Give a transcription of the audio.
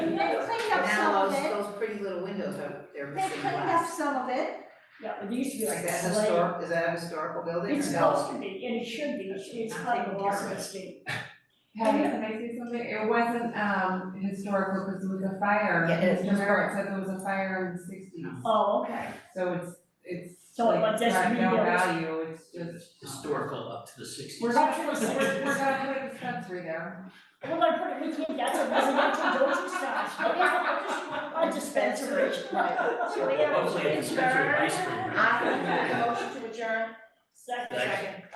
those are, they're They've missing cleaned up glass. some of it, Yeah, but it used to be like Is that that. like- historic, is that a historical building or It's no? supposed to be, and it should be, it's, it's like a Boston State. Patty, can I say something? It wasn't, um, historical because it was a fire. Yeah, it's Mr. Merritt said there was a fire in the sixties, Oh, okay. so it's, it's So it like, was just got no rebuilt. value, it's just. historical up to the sixties. We're not gonna say, We're, we're we're gonna put a dispensary there. gonna put it, we can't, that's a residential dosage stash. A dispensary. right. Hopefully, it's a dispensary of ice cream. I, motion to adjourn. Second. Second.